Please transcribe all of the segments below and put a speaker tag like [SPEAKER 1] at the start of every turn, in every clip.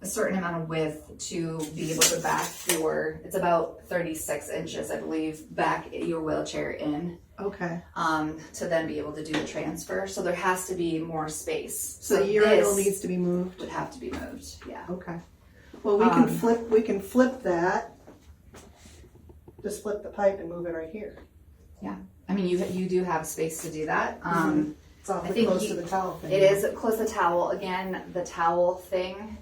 [SPEAKER 1] a certain amount of width to be able to back your, it's about thirty-six inches, I believe, back your wheelchair in,
[SPEAKER 2] Okay.
[SPEAKER 1] um, to then be able to do the transfer, so there has to be more space.
[SPEAKER 2] So the urinal
[SPEAKER 1] this
[SPEAKER 2] needs to be moved.
[SPEAKER 1] Would have to be moved, yeah.
[SPEAKER 2] Okay. Well, we can
[SPEAKER 1] Um,
[SPEAKER 2] flip, we can flip that. Just flip the pipe and move it right here.
[SPEAKER 1] I mean, you, you do have space to do that,
[SPEAKER 2] Mm-hmm.
[SPEAKER 1] um,
[SPEAKER 2] It's awfully
[SPEAKER 1] think
[SPEAKER 2] close
[SPEAKER 1] you-
[SPEAKER 2] to the towel thing.
[SPEAKER 1] it is, close the towel, again, the towel thing,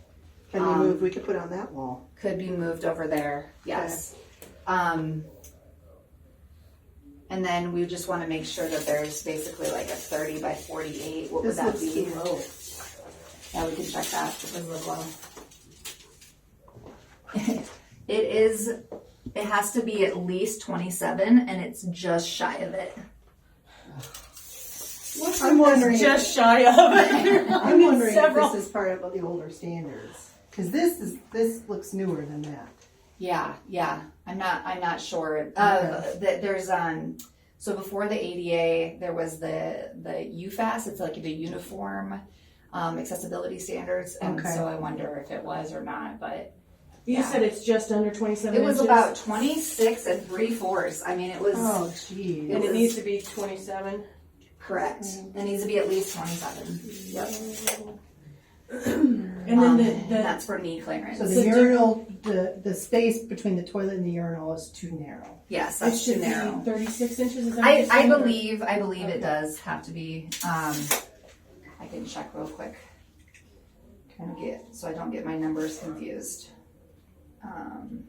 [SPEAKER 2] Can
[SPEAKER 1] um,
[SPEAKER 2] we move, we could put on that wall.
[SPEAKER 1] could be moved over there, yes. Um, and then we just wanna make sure that there's basically like a thirty by forty-eight, what would
[SPEAKER 2] This
[SPEAKER 1] that
[SPEAKER 2] looks
[SPEAKER 1] be?
[SPEAKER 2] too low.
[SPEAKER 1] Yeah, we can check that, it doesn't look low. It is, it has to be at least twenty-seven, and it's just shy of it.
[SPEAKER 2] I'm wondering,
[SPEAKER 3] Just shy of.
[SPEAKER 2] I'm wondering if
[SPEAKER 3] several.
[SPEAKER 2] this is part of the older standards. Cause this is, this looks newer than that.
[SPEAKER 1] Yeah, yeah. I'm not. I'm not sure. Uh, that there's um. So before the ADA, there was the the UFAS. It's like the uniform um, accessibility standards, and
[SPEAKER 2] Okay.
[SPEAKER 1] so I wonder if it was or not. But
[SPEAKER 3] You said it's just under twenty-seven
[SPEAKER 1] it was
[SPEAKER 3] inches.
[SPEAKER 1] about 26 and three fourths. I mean, it was
[SPEAKER 2] Oh, gee.
[SPEAKER 3] And
[SPEAKER 1] was-
[SPEAKER 3] it needs to be twenty-seven.
[SPEAKER 1] correct.
[SPEAKER 3] Mm-hmm.
[SPEAKER 1] It needs to be at least 27. Yep.
[SPEAKER 3] And then
[SPEAKER 1] Um,
[SPEAKER 3] the,
[SPEAKER 1] and
[SPEAKER 3] the,
[SPEAKER 1] that's for knee clearance.
[SPEAKER 2] So
[SPEAKER 3] So
[SPEAKER 2] the
[SPEAKER 3] do-
[SPEAKER 2] urinal, the, the space between the toilet and the urinal is too narrow.
[SPEAKER 1] yes,
[SPEAKER 3] it
[SPEAKER 1] that's too
[SPEAKER 3] should be
[SPEAKER 1] narrow.
[SPEAKER 3] thirty-six inches, is that what
[SPEAKER 1] I,
[SPEAKER 3] you're
[SPEAKER 1] I
[SPEAKER 3] saying?
[SPEAKER 1] believe I believe
[SPEAKER 3] Okay.
[SPEAKER 1] it does have to be. Um, I can check real quick. Kind of get so I don't get my numbers confused. Um,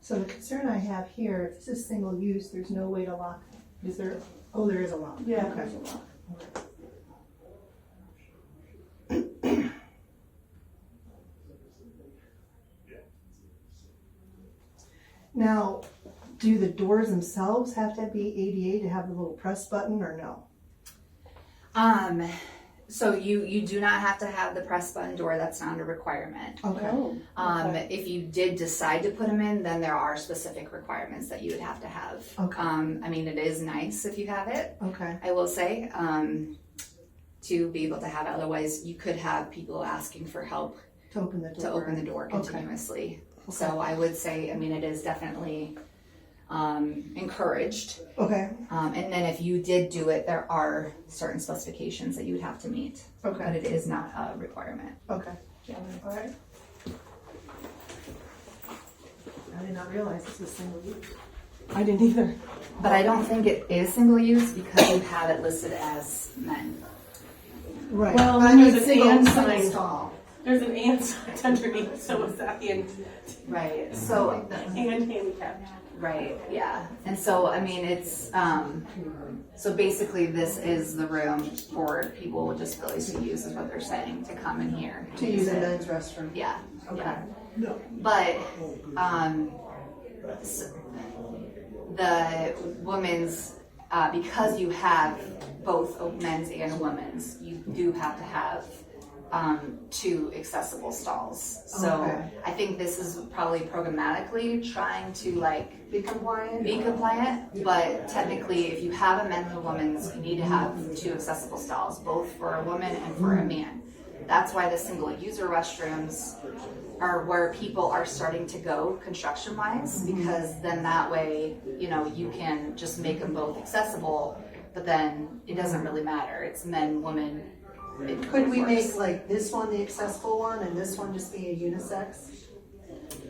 [SPEAKER 2] So the concern I have here, if this is single use, there's no way to lock. it. Is there, oh, there is a lock.
[SPEAKER 3] Yeah.
[SPEAKER 2] Okay. Now, do the doors themselves have to be ADA to have the little press button or no?
[SPEAKER 1] um, so you you do not have to have the press button door. That's not a requirement.
[SPEAKER 2] Okay,
[SPEAKER 3] Oh,
[SPEAKER 1] Um, if you did decide to put them in, then there are specific requirements that you would have to have.
[SPEAKER 2] Okay.
[SPEAKER 1] Um, I mean, it is nice if you have it.
[SPEAKER 2] okay.
[SPEAKER 1] I will say, um, to be able to have it. Otherwise, you could have people asking for help
[SPEAKER 2] To open the door.
[SPEAKER 1] to open the door
[SPEAKER 2] Okay.
[SPEAKER 1] continuously. So I would say, I mean, it is definitely um, encouraged.
[SPEAKER 2] Okay,
[SPEAKER 1] Um, and then if you did do it, there are certain specifications that you would have to meet.
[SPEAKER 2] Okay.
[SPEAKER 1] But it is not a requirement.
[SPEAKER 2] okay. All right. I did not realize this was single use.
[SPEAKER 3] I didn't either.
[SPEAKER 1] But I don't think it is single use because you have it listed as men.
[SPEAKER 2] Right.
[SPEAKER 3] Well,
[SPEAKER 2] I
[SPEAKER 3] there's
[SPEAKER 2] mean,
[SPEAKER 3] an
[SPEAKER 2] single,
[SPEAKER 3] and
[SPEAKER 2] single
[SPEAKER 3] sign.
[SPEAKER 2] stall.
[SPEAKER 3] There's an and sign underneath, so is that the and,
[SPEAKER 1] Right. So
[SPEAKER 3] and handicap?
[SPEAKER 1] Right, yeah. And so, I mean, it's, um, so basically this is the room for people with disabilities to use is what they're saying, to come in here.
[SPEAKER 2] To use a men's restroom.
[SPEAKER 1] Yeah, yeah. But, um, s- the women's, uh, because you have both a men's and a women's, you do have to have, um, two accessible stalls. So
[SPEAKER 2] Okay.
[SPEAKER 1] I think this is probably programmatically trying to like
[SPEAKER 2] Be compliant.
[SPEAKER 1] be compliant, but technically, if you have a men and a woman's, you need to have two accessible stalls, both for a woman and for a man. That's why the single user restrooms are where people are starting to go construction wise,
[SPEAKER 2] Mm-hmm.
[SPEAKER 1] because then that way, you know, you can just make them both accessible, but then it doesn't really matter. It's men, women. it
[SPEAKER 2] Could we
[SPEAKER 1] works.
[SPEAKER 2] make like this one the accessible one and this one just be a unisex?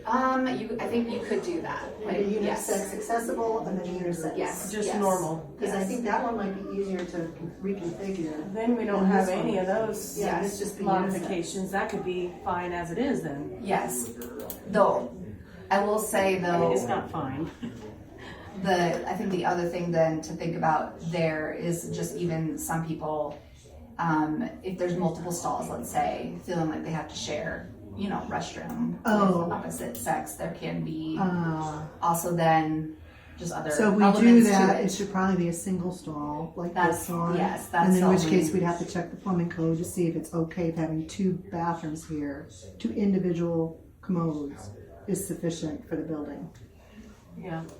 [SPEAKER 1] Um, you, I think you could do that.
[SPEAKER 2] Like a
[SPEAKER 1] Like, yes.
[SPEAKER 2] unisex accessible and then a unisex?
[SPEAKER 1] Yes.
[SPEAKER 3] Just
[SPEAKER 1] yes,
[SPEAKER 3] normal.
[SPEAKER 2] Because I
[SPEAKER 1] yes.
[SPEAKER 2] think that one might be easier to reconfigure.
[SPEAKER 3] Then we don't
[SPEAKER 2] And
[SPEAKER 3] have
[SPEAKER 2] this one.
[SPEAKER 3] any of those
[SPEAKER 2] Yeah, it's just the
[SPEAKER 3] modifications, that could be fine as it is then.
[SPEAKER 1] Yes, though, I will say
[SPEAKER 3] I mean, it's
[SPEAKER 1] though,
[SPEAKER 3] not fine.
[SPEAKER 1] the, I think the other thing then to think about there is just even some people, um, if there's multiple stalls, let's say, feeling like they have to share, you know, restroom
[SPEAKER 2] Oh.
[SPEAKER 1] with opposite sex, there can be
[SPEAKER 2] Uh,
[SPEAKER 1] also then just other
[SPEAKER 2] so if we do
[SPEAKER 1] elements
[SPEAKER 2] that,
[SPEAKER 1] to
[SPEAKER 2] it
[SPEAKER 1] it.
[SPEAKER 2] should probably be a single stall like
[SPEAKER 1] That's-
[SPEAKER 2] this one.
[SPEAKER 1] yes,
[SPEAKER 2] And
[SPEAKER 1] that's
[SPEAKER 2] in
[SPEAKER 1] the
[SPEAKER 2] which
[SPEAKER 1] only-
[SPEAKER 2] case, we'd have to check the plumbing code to see if it's okay if having two bathrooms here, two individual commodes is sufficient for the building.
[SPEAKER 3] Yeah.